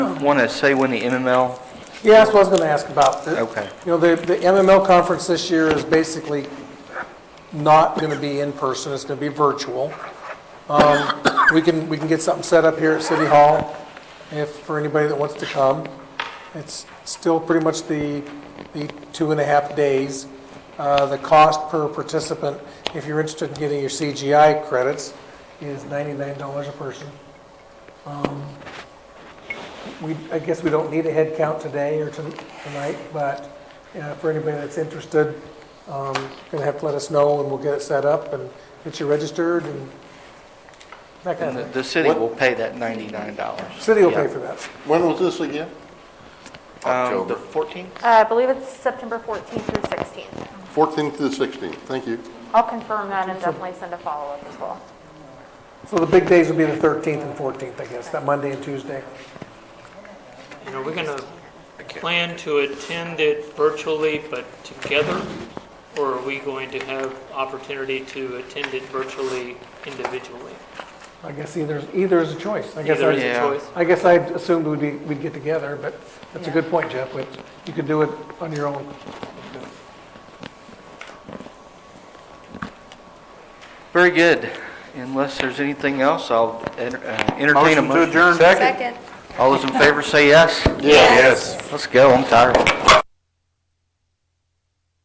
want to say when the MML? Yeah, that's what I was going to ask about. The- Okay. You know, the, the MML conference this year is basically not going to be in person, it's going to be virtual. Um, We can, we can get something set up here at City Hall if, for anybody that wants to come. It's still pretty much the, the two and a half days. Uh, The cost per participant, if you're interested in getting your CGI credits, is $99 a person. Um, We, I guess we don't need a head count today or ton- tonight, but uh, for anybody that's interested, um, gonna have to let us know, and we'll get it set up and get you registered and And that kind the- of thing. the city will pay that $99. City will pay for that. When was this again? Um, The 14th? Uh, I believe it's September 14th through 16th. 14th to the 16th, thank you. I'll confirm that and definitely send a follow-up as well. So the big days will be the 13th and 14th, I guess, that Monday and Tuesday. And are we going to plan to attend it virtually but together? Or are we going to have opportunity to attend it virtually individually? I guess either, either is a choice. I guess Either is I, a Yeah. choice. I guess I assumed we'd be, we'd get together, but that's a good point, Jeff, but you could do it on your own. Very good. Unless there's anything else, I'll enter- uh, entertain a motion. adjourn. All those in favor say yes. Yes. Let's go, I'm tired.